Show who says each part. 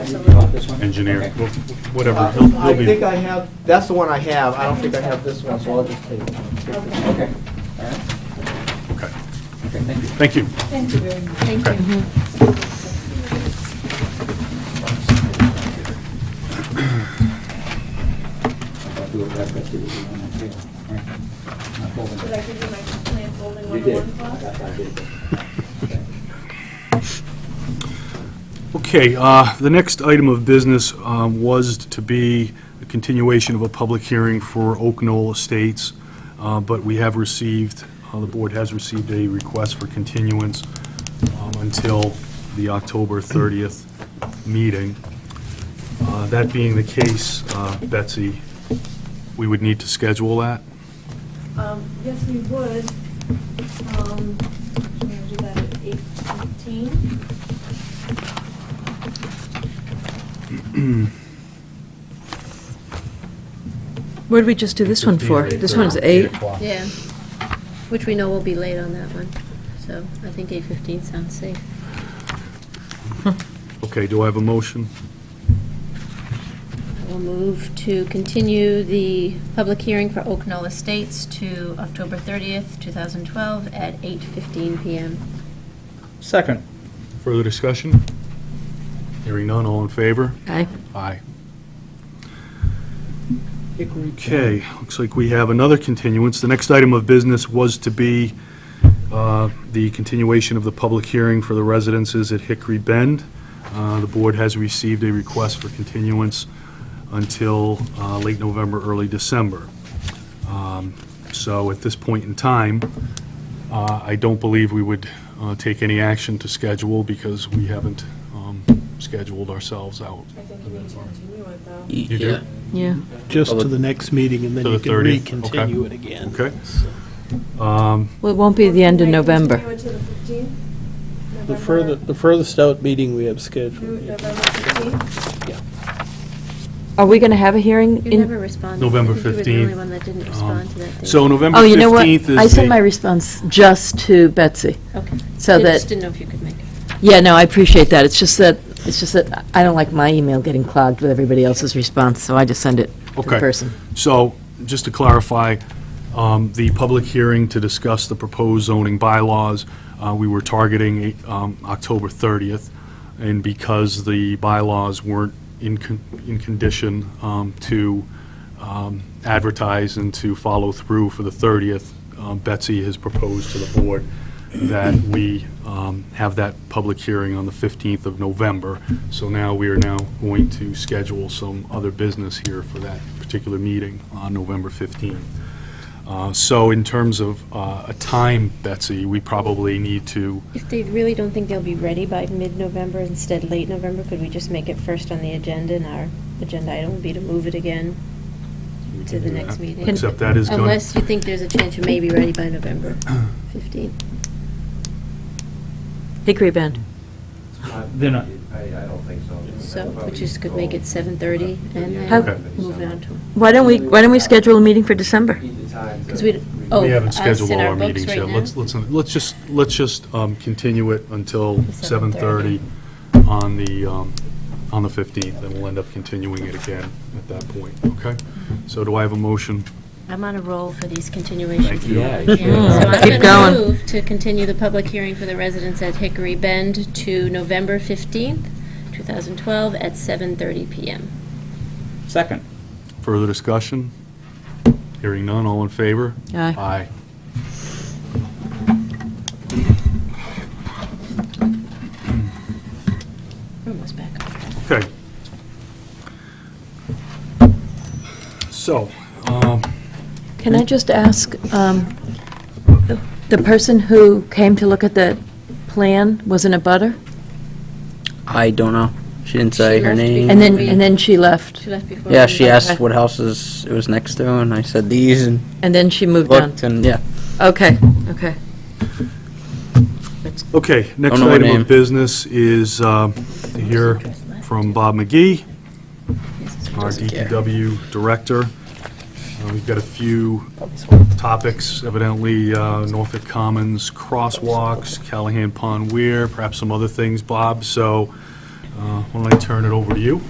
Speaker 1: a little.
Speaker 2: This one?
Speaker 3: engineer,
Speaker 2: Okay.
Speaker 3: wh- whatever,
Speaker 1: Uh,
Speaker 3: he'll,
Speaker 1: I
Speaker 3: he'll
Speaker 1: think
Speaker 3: be,
Speaker 1: I have, that's the one I have, I don't think I have this one, so I'll just take it.
Speaker 4: Okay.
Speaker 2: Okay, all right,
Speaker 3: okay,
Speaker 2: okay, thank you.
Speaker 3: thank you.
Speaker 4: Thank you very much. Thank
Speaker 3: Okay.
Speaker 2: I'll do it back, that's it, we'll do it on that table. All right. Not folding.
Speaker 4: Did I give you my plan folding
Speaker 2: You
Speaker 4: one
Speaker 2: did.
Speaker 4: one class?
Speaker 2: I did. Okay.
Speaker 3: Okay, uh, the next item of business um, was to be a continuation of a public hearing for Oak Knoll Estates, uh, but we have received, uh, the board has received a request for continuance um, until the October 30th meeting. Uh, That being the case, uh, Betsy, we would need to schedule that?
Speaker 4: Um, yes, we would. Um, we're gonna do that at eight fifteen.
Speaker 5: What did we just do this one for? This one's eight?
Speaker 6: Yeah, which we know will be late on that one, so I think 8:15 sounds safe.
Speaker 3: Okay, do I have a motion?
Speaker 6: We'll move to continue the public hearing for Oak Knoll Estates to October 30th, 2012, at 8:15 PM.
Speaker 2: Second.
Speaker 3: Further discussion? Hearing none, all in favor?
Speaker 5: Aye.
Speaker 3: Aye. Okay, looks like we have another continuance. The next item of business was to be uh, the continuation of the public hearing for the residences at Hickory Bend. Uh, The board has received a request for continuance until uh, late November, early December. Um, So at this point in time, uh, I don't believe we would uh, take any action to schedule because we haven't um, scheduled ourselves out.
Speaker 4: I think you need to continue it though.
Speaker 3: You do?
Speaker 7: Yeah,
Speaker 5: Yeah.
Speaker 7: Just to the next meeting, and then
Speaker 3: To
Speaker 7: you
Speaker 3: the
Speaker 7: can
Speaker 3: 30th, okay.
Speaker 7: recontinue it again.
Speaker 3: Okay.
Speaker 7: So-
Speaker 3: Um,
Speaker 5: Well, it won't be the end of
Speaker 4: Can I
Speaker 5: November.
Speaker 4: Continue it to the fifteenth?
Speaker 7: The further, the furthest out meeting we have scheduled. yeah.
Speaker 4: November fifteenth?
Speaker 5: Are we going to have a hearing
Speaker 6: You never
Speaker 5: in?
Speaker 6: responded.
Speaker 3: November
Speaker 6: I think you were the
Speaker 3: 15th.
Speaker 6: only one that didn't respond to that date.
Speaker 3: So November
Speaker 5: Oh, you know what?
Speaker 3: 15th is
Speaker 5: I sent
Speaker 3: the-
Speaker 5: my response just to Betsy.
Speaker 6: Okay.
Speaker 5: So
Speaker 6: I just
Speaker 5: that,
Speaker 6: didn't know if you could make it.
Speaker 5: yeah, no, I appreciate that. It's just that, it's just that I don't like my email getting clogged with everybody else's response, so I just send it to the
Speaker 3: Okay.
Speaker 5: person.
Speaker 3: So, just to clarify, um, the public hearing to discuss the proposed zoning bylaws, uh, we were targeting um, October 30th, and because the bylaws weren't in con- in condition um, to um, advertise and to follow through for the 30th, um, Betsy has proposed to the board that we um, have that public hearing on the 15th of November. So now, we are now going to schedule some other business here for that particular meeting on November 15th. Uh, So in terms of uh, a time, Betsy, we probably need to,
Speaker 6: If they really don't think they'll be ready by mid-November, instead late November, could we just make it first on the agenda, and our agenda item would be to move it again
Speaker 3: we
Speaker 6: to
Speaker 3: can
Speaker 6: the
Speaker 3: do
Speaker 6: next
Speaker 3: that.
Speaker 6: meeting?
Speaker 3: except that is going
Speaker 6: Unless you think there's a chance you may be ready by November 15th.
Speaker 5: Hickory Bend.
Speaker 2: They're not,
Speaker 8: I, I don't think so.
Speaker 6: So, which is, could make it 7:30 and
Speaker 5: How-
Speaker 6: then move it on to,
Speaker 5: Why don't we, why don't we schedule a meeting for December?
Speaker 6: because we, oh,
Speaker 3: We haven't
Speaker 6: us
Speaker 3: scheduled
Speaker 6: in
Speaker 3: all
Speaker 6: our
Speaker 3: our
Speaker 6: books
Speaker 3: meetings
Speaker 6: right
Speaker 3: yet.
Speaker 6: now?
Speaker 3: Let's, let's, let's just, let's just um, continue it until
Speaker 6: 7:30.
Speaker 3: 7:30 on the, um, on the 15th, and we'll end up continuing it again at that point, okay? So do I have a motion?
Speaker 6: I'm on a roll for these continuations.
Speaker 3: Thank you.
Speaker 2: Yeah,
Speaker 6: So
Speaker 2: you
Speaker 6: I'm
Speaker 5: Keep going.
Speaker 6: going to move to continue the public hearing for the residents at Hickory Bend to November 15th, 2012, at 7:30 PM.
Speaker 2: second.
Speaker 3: Further discussion? Hearing none, all in favor?
Speaker 5: Aye.
Speaker 3: Aye.
Speaker 6: We're Almost back.
Speaker 3: Okay. So, um,
Speaker 5: Can I just ask, um, the person who came to look at that plan was in a butter?
Speaker 9: I don't know. She didn't say
Speaker 6: She
Speaker 9: her
Speaker 6: left
Speaker 9: name.
Speaker 6: because-
Speaker 5: And then, and then she left,
Speaker 6: She left before.
Speaker 9: Yeah,
Speaker 6: we-
Speaker 9: she asked what houses it was next to, and I said these, and
Speaker 5: and then she moved on.
Speaker 9: looked, and yeah.
Speaker 5: Okay, okay.
Speaker 3: okay, next
Speaker 9: Don't know her
Speaker 3: item
Speaker 9: name.
Speaker 3: of business is um, to hear from Bob McGee.
Speaker 6: Yes, it's-
Speaker 3: our
Speaker 9: Doesn't care.
Speaker 3: DPW director. Uh, We've got a few
Speaker 9: Oh,
Speaker 3: topics, evidently uh, Norfolk Commons crosswalks, Callahan Pond Weir, perhaps some other things, Bob. So uh, Uh, Why don't I turn it over to you?